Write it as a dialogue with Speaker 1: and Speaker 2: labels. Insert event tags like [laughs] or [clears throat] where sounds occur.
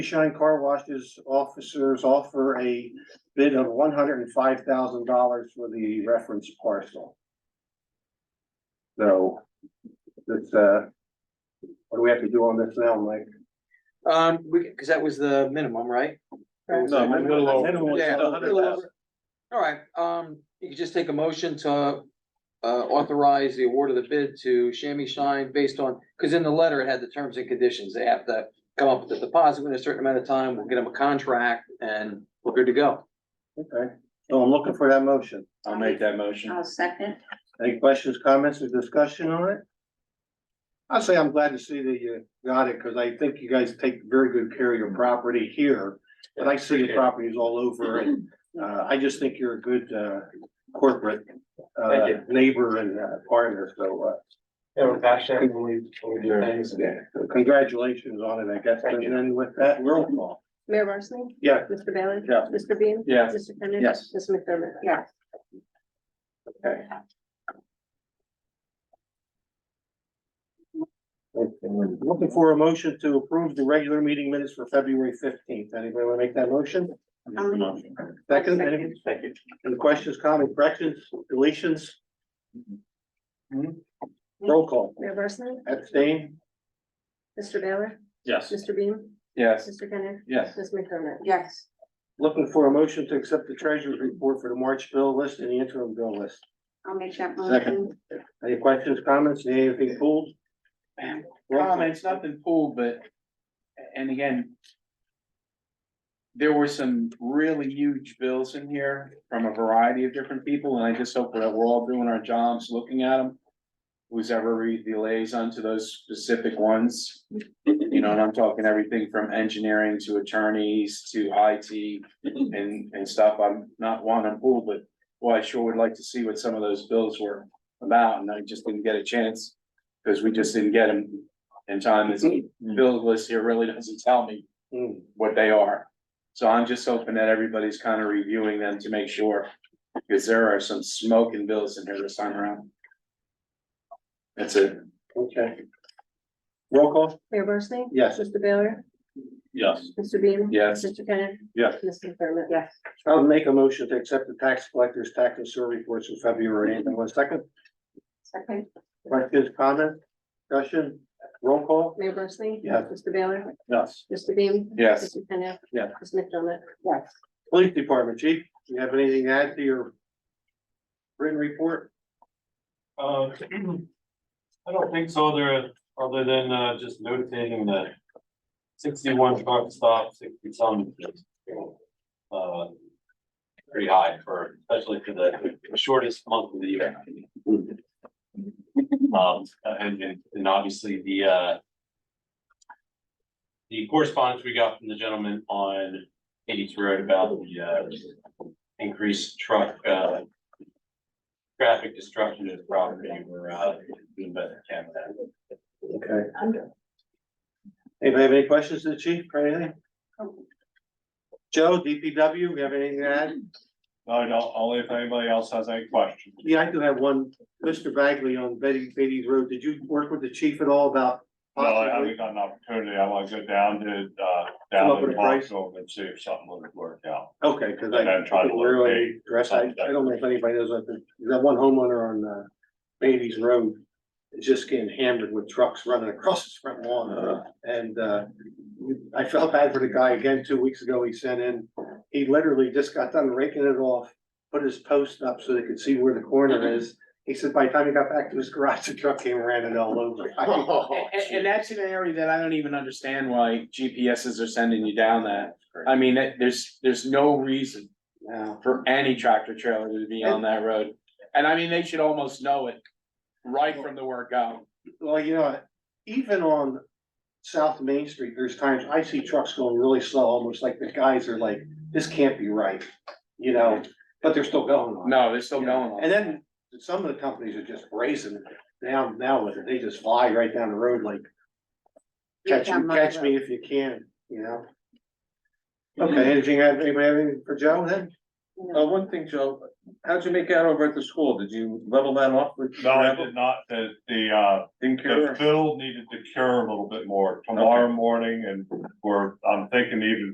Speaker 1: Shine Car Washes officers offer a bid of one hundred and five thousand dollars for the reference parcel. So, that's, uh, what do we have to do on this now, Mike?
Speaker 2: Um, we, cause that was the minimum, right?
Speaker 3: No, a little over.
Speaker 1: Minimum is
Speaker 2: Yeah, a
Speaker 1: $100,000.
Speaker 2: little over. All right, um, you could just take a motion to, uh, authorize the award of the bid to Chamois Shine based on, cause in the letter it had the terms and conditions. They have to come up with a deposit within a certain amount of time. We'll get them a contract and we're good to go.
Speaker 1: Okay, so I'm looking for that motion.
Speaker 3: I'll make that motion.
Speaker 4: I'll second.
Speaker 1: Any questions, comments, or discussion on it? I'll say I'm glad to see that you got it, because I think you guys take very good care of your property here. But I see your properties all over,
Speaker 3: [laughs]
Speaker 1: and, uh, I just think you're a good, uh, corporate, uh,
Speaker 3: Thank you.
Speaker 1: neighbor and uh, partner, so, uh,
Speaker 3: Yeah, we're passionate when we, when we do things.
Speaker 1: yeah, so congratulations on it, I guess.
Speaker 3: Thank
Speaker 1: And
Speaker 3: you.
Speaker 1: then with that, roll call.
Speaker 5: Mayor Barsney?
Speaker 1: Yeah,
Speaker 5: Mr. Baylor?
Speaker 1: Yeah.
Speaker 5: Mr. Bean?
Speaker 3: Yes.
Speaker 5: Mr. Kennedy?
Speaker 1: Yes.
Speaker 5: Ms. McDermott?
Speaker 4: Yes.
Speaker 1: okay. Looking for a motion to approve the regular meeting minutes for February fifteenth. Anybody want to make that motion?
Speaker 4: I'll make it.
Speaker 1: Second, any,
Speaker 3: Second.
Speaker 1: any questions, comments, corrections, deletions? Hmm? Roll call,
Speaker 5: Mayor Barsney?
Speaker 1: abstain?
Speaker 5: Mr. Baylor?
Speaker 3: Yes.
Speaker 5: Mr. Bean?
Speaker 3: Yes.
Speaker 5: Mr. Kennedy?
Speaker 3: Yes.
Speaker 5: Ms. McDermott?
Speaker 4: Yes,
Speaker 1: Looking for a motion to accept the treasurer's report for the March bill list and the interim bill list.
Speaker 4: I'll make that
Speaker 1: Second.
Speaker 4: motion.
Speaker 1: Any questions, comments, anything pulled? Roll call.
Speaker 6: Comments, nothing pulled, but, and again. There were some really huge bills in here from a variety of different people, and I just hope that we're all doing our jobs, looking at them. Who's ever read the liaison to those specific ones, you know, and I'm talking everything from engineering to attorneys to IT and, and stuff. I'm not wanting to pull, but, well, I sure would like to see what some of those bills were about, and I just didn't get a chance. Cause we just didn't get them in time, this bill list here really doesn't tell me
Speaker 1: Hmm.
Speaker 6: what they are. So I'm just hoping that everybody's kind of reviewing them to make sure, because there are some smoking bills in here this time around. That's it.
Speaker 1: Okay. Roll call,
Speaker 5: Mayor Barsney?
Speaker 1: Yes.
Speaker 5: Mr. Baylor?
Speaker 3: Yes.
Speaker 5: Mr. Bean?
Speaker 6: Yes.
Speaker 5: Mr. Kennedy?
Speaker 1: Yes.
Speaker 5: Ms. McDermott?
Speaker 4: Yes,
Speaker 1: I'll make a motion to accept the tax collector's tax and sewer reports for February, and one second,
Speaker 4: second.
Speaker 1: questions, comments, discussion, roll call?
Speaker 5: Mayor Barsney?
Speaker 1: Yes.
Speaker 5: Mr. Baylor?
Speaker 1: Yes.
Speaker 5: Mr. Bean?
Speaker 6: Yes.
Speaker 5: Mr. Kennedy?
Speaker 1: Yes.
Speaker 5: Ms. McDermott?
Speaker 4: Yes.
Speaker 1: Police Department Chief, do you have anything to add to your written report?
Speaker 7: Uh, [clears throat] I don't think so, other, other than, uh, just notating that sixty-one truck stop, sixty some. Uh, pretty high for, especially for the shortest month of the year. Um, and, and- and obviously the, uh, the correspondence we got from the gentleman on Eighties Road about the, uh, increased truck, uh, traffic destruction is property, we're, uh, doing better than that.
Speaker 1: Okay. Anybody have any questions to the chief or anything? Joe, DPW, we have anything to add?
Speaker 3: No, no, only if anybody else has any questions.
Speaker 1: Yeah, I do have one. Mr. Bagley on Betty, Beatty's Road, did you work with the chief at all about?
Speaker 3: No, I
Speaker 1: possibly-
Speaker 3: haven't got an opportunity. I want to go down to, uh,
Speaker 1: Come up
Speaker 3: down
Speaker 1: with
Speaker 3: to
Speaker 1: a price?
Speaker 3: Marshall and see if something would work out.
Speaker 1: Okay, cause I.
Speaker 3: And then try to
Speaker 1: Really,
Speaker 3: locate
Speaker 1: dress, I, I don't know if anybody knows, like, that one homeowner on, uh, Beatty's Road is just getting hammered with trucks running across his front lawn. And, uh, I felt bad for the guy again, two weeks ago, he sent in, he literally just got done raking it off, put his post up so they could see where the corner is. He said by the time he got back to his garage, the truck came and ran it all over.
Speaker 6: And, and that's an area that I don't even understand why GPSs are sending you down that. I mean, that- there's, there's no reason for any tractor trailer to be on that road. And I mean, they should almost know it right from the word go.
Speaker 1: Well, you know, even on South Main Street, there's times I see trucks going really slow, almost like the guys are like, this can't be right. You know, but they're still going on.
Speaker 6: No, they're still going on.
Speaker 1: And then some of the companies are just brazen now, now with it, they just fly right down the road like, catch me, catch me if you can, you know? Okay, anything, anybody have anything for Joe then?
Speaker 5: No.
Speaker 8: Uh, one thing, Joe, how'd you make out over at the school? Did you level that off with?
Speaker 3: No, I did not, the, the, uh,
Speaker 8: Didn't
Speaker 3: the
Speaker 8: care?
Speaker 3: fill needed to cure a little bit more tomorrow morning and we're, I'm thinking even